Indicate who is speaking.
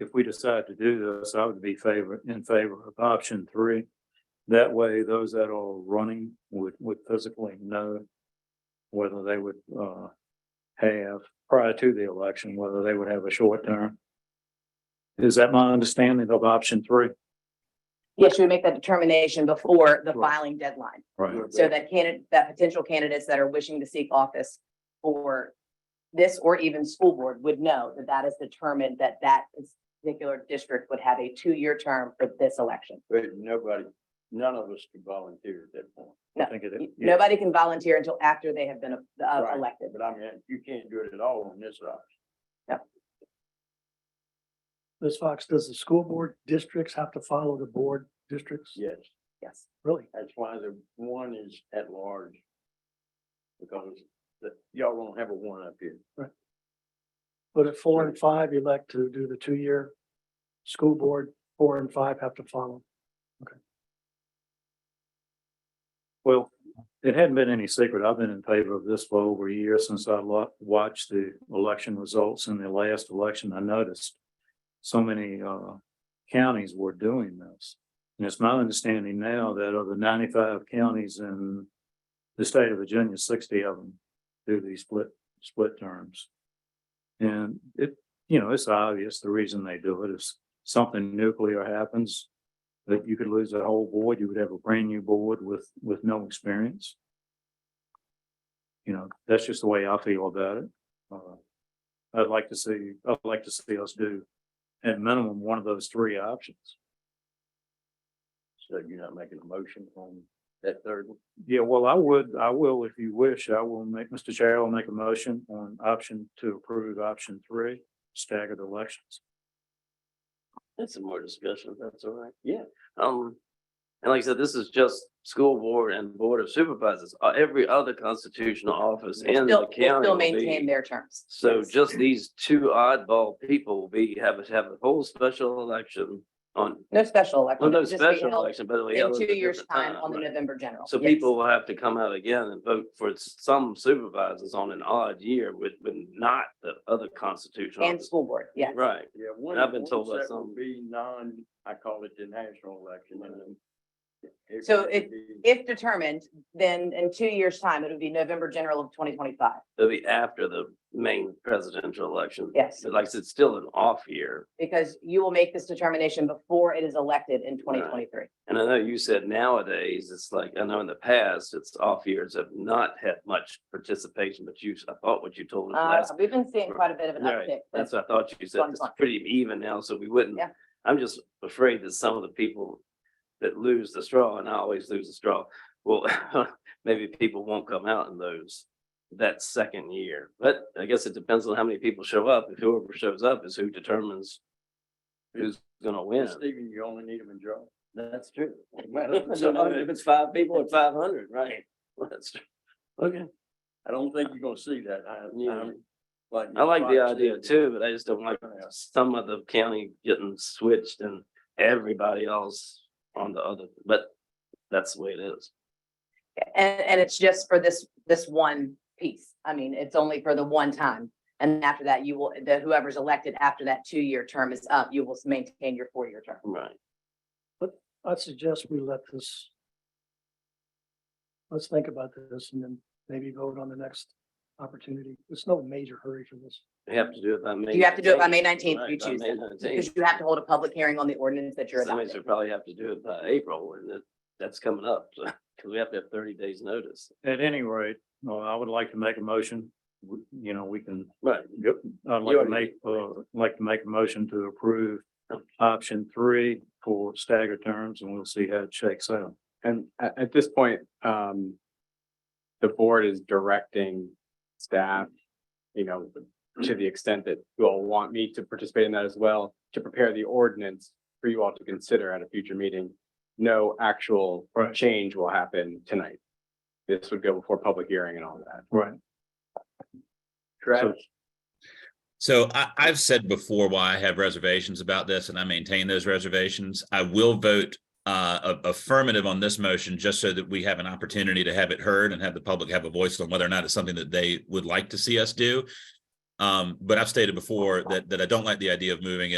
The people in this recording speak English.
Speaker 1: if we decide to do this, I would be favor, in favor of option three. That way, those that are running would, would physically know whether they would, uh, have, prior to the election, whether they would have a short term. Is that my understanding of option three?
Speaker 2: Yes, you would make that determination before the
Speaker 1: Right.
Speaker 2: filing deadline.
Speaker 1: Right.
Speaker 2: So that candidate, that potential candidates that are wishing to seek office for this or even school board would know that that is determined that that particular district would have a two-year term for this election.
Speaker 3: But nobody, none of us could volunteer at that point.
Speaker 1: I think it- yeah.
Speaker 2: Nobody can volunteer until after they have been uh,
Speaker 3: Right.
Speaker 2: elected.
Speaker 3: But I mean, you can't do it at all on this option.
Speaker 4: Ms. Fox, does the school board districts have to follow the board districts?
Speaker 3: Yes,
Speaker 2: Yes.
Speaker 4: Really?
Speaker 3: that's why the one is at large. Because the- y'all don't have a one up here.
Speaker 4: But at four and five elect to do the two-year, school board, four and five have to follow.
Speaker 1: Well, it hadn't been any secret. I've been in favor of this for over a year since I lo- watched the election results in the last election. I noticed so many uh counties were doing this. And it's my understanding now that of the ninety-five counties in the state of Virginia, sixty of them do these split, split terms. And it, you know, it's obvious the reason they do it is something nuclear happens, that you could lose a whole board, you would have a brand new board with, with no experience. You know, that's just the way I feel about it. Uh, I'd like to see, I'd like to see us do at minimum one of those three options.
Speaker 3: So you're not making a motion on that third one.
Speaker 1: Yeah, well, I would, I will, if you wish, I will make, Mr. Chair, I'll make a motion on option to approve option three, staggered elections.
Speaker 5: That's some more discussion, if that's all right.
Speaker 3: Yeah.
Speaker 5: Um, and like I said, this is just school board and board of supervisors, Uh, every other constitutional office in the
Speaker 2: Still, will
Speaker 5: county.
Speaker 2: still
Speaker 5: will be-
Speaker 2: maintain their terms.
Speaker 5: So
Speaker 2: Yes.
Speaker 5: just these two oddball people, will be have, have a whole special election on,
Speaker 2: No special election.
Speaker 5: well, no
Speaker 2: it'll just be
Speaker 5: special
Speaker 2: held
Speaker 5: election, but. it'll be
Speaker 2: In
Speaker 5: held at a
Speaker 2: two years'
Speaker 5: different
Speaker 2: time on the
Speaker 5: right?
Speaker 2: November general.
Speaker 5: So
Speaker 2: Yes.
Speaker 5: people will have to come out again and vote for s- some supervisors on an odd year with, with not the other constitutional.
Speaker 2: And
Speaker 5: office.
Speaker 2: school board, yes.
Speaker 5: Right,
Speaker 3: Yeah. one-
Speaker 5: I've been
Speaker 3: one
Speaker 5: told
Speaker 3: set
Speaker 5: by
Speaker 3: would
Speaker 5: some.
Speaker 3: Be non, I call it the national election and then. it
Speaker 2: So
Speaker 3: would
Speaker 2: it-
Speaker 3: be-
Speaker 2: If determined, then in two years' time, it would be November general of twenty twenty-five.
Speaker 5: it'll be after the main presidential election.
Speaker 2: Yes,
Speaker 5: So like I said, it's still an off year.
Speaker 2: because you will make this determination before it is elected in twenty twenty-three.
Speaker 5: And I know you said nowadays, it's like, I know in the past, it's off years have not had much participation, but you, I thought what you told us
Speaker 2: Uh,
Speaker 5: last.
Speaker 2: we've been seeing quite a bit of an
Speaker 5: Right,
Speaker 2: uptick. but
Speaker 5: That's what I thought you said.
Speaker 2: Fun,
Speaker 5: It's
Speaker 2: fun.
Speaker 5: pretty even now, so we wouldn't.
Speaker 2: Yeah.
Speaker 5: I'm just afraid that some of the people that lose the straw, and I always lose the straw, well, maybe people won't come out in those that second year. But I guess it depends on how many people show up. If whoever shows up is who determines who's gonna win.
Speaker 3: Stephen, you only need a majority.
Speaker 5: That's true.
Speaker 3: So, I mean,
Speaker 5: If it's five people, it's five hundred, right? That's true. Okay,
Speaker 3: I don't think you're gonna see that. I,
Speaker 5: Yeah.
Speaker 3: I'm. like
Speaker 5: I like the
Speaker 3: Fox
Speaker 5: idea
Speaker 3: said,
Speaker 5: too, but I just don't like some of the county getting switched and everybody else on the other, but that's the way it is.
Speaker 2: And, and it's just for this, this one piece. I mean, it's only for the one time. And after that, you will, the whoever's elected after that two-year term is up, you will maintain your four-year term.
Speaker 5: Right.
Speaker 4: I suggest we let this. Let's think about this and then maybe vote on the next opportunity. It's no major hurry for this.
Speaker 5: You have to do it by May.
Speaker 2: You have to do it by May
Speaker 5: 19th.
Speaker 2: 19th if you choose that, Because you have to hold a public hearing on the ordinance that you're
Speaker 5: Somebody
Speaker 2: adopting.
Speaker 5: should probably have to do it by April and that, that's coming up, so, because we have to have thirty days notice.
Speaker 1: At any rate, well, I would like to make a motion, We- you know, we can
Speaker 5: Right.
Speaker 1: Yep, I'd like to
Speaker 5: already
Speaker 1: make, uh, like to make a motion to approve
Speaker 5: Okay.
Speaker 1: option three for staggered terms and we'll see how it shakes out.
Speaker 6: And at, at this point, um, the board is directing staff, you know, to the extent that you all want me to participate in that as well, to prepare the ordinance for you all to consider at a future meeting. No actual
Speaker 1: Right.
Speaker 6: change will happen tonight. This would go before public hearing and all that.
Speaker 1: Right.
Speaker 3: Travis,
Speaker 7: So I, I've said before why I have reservations about this and I maintain those reservations. I will vote uh, a- affirmative on this motion just so that we have an opportunity to have it heard and have the public have a voice on whether or not it's something that they would like to see us do. Um, but I've stated before that, that I don't like the idea of moving it.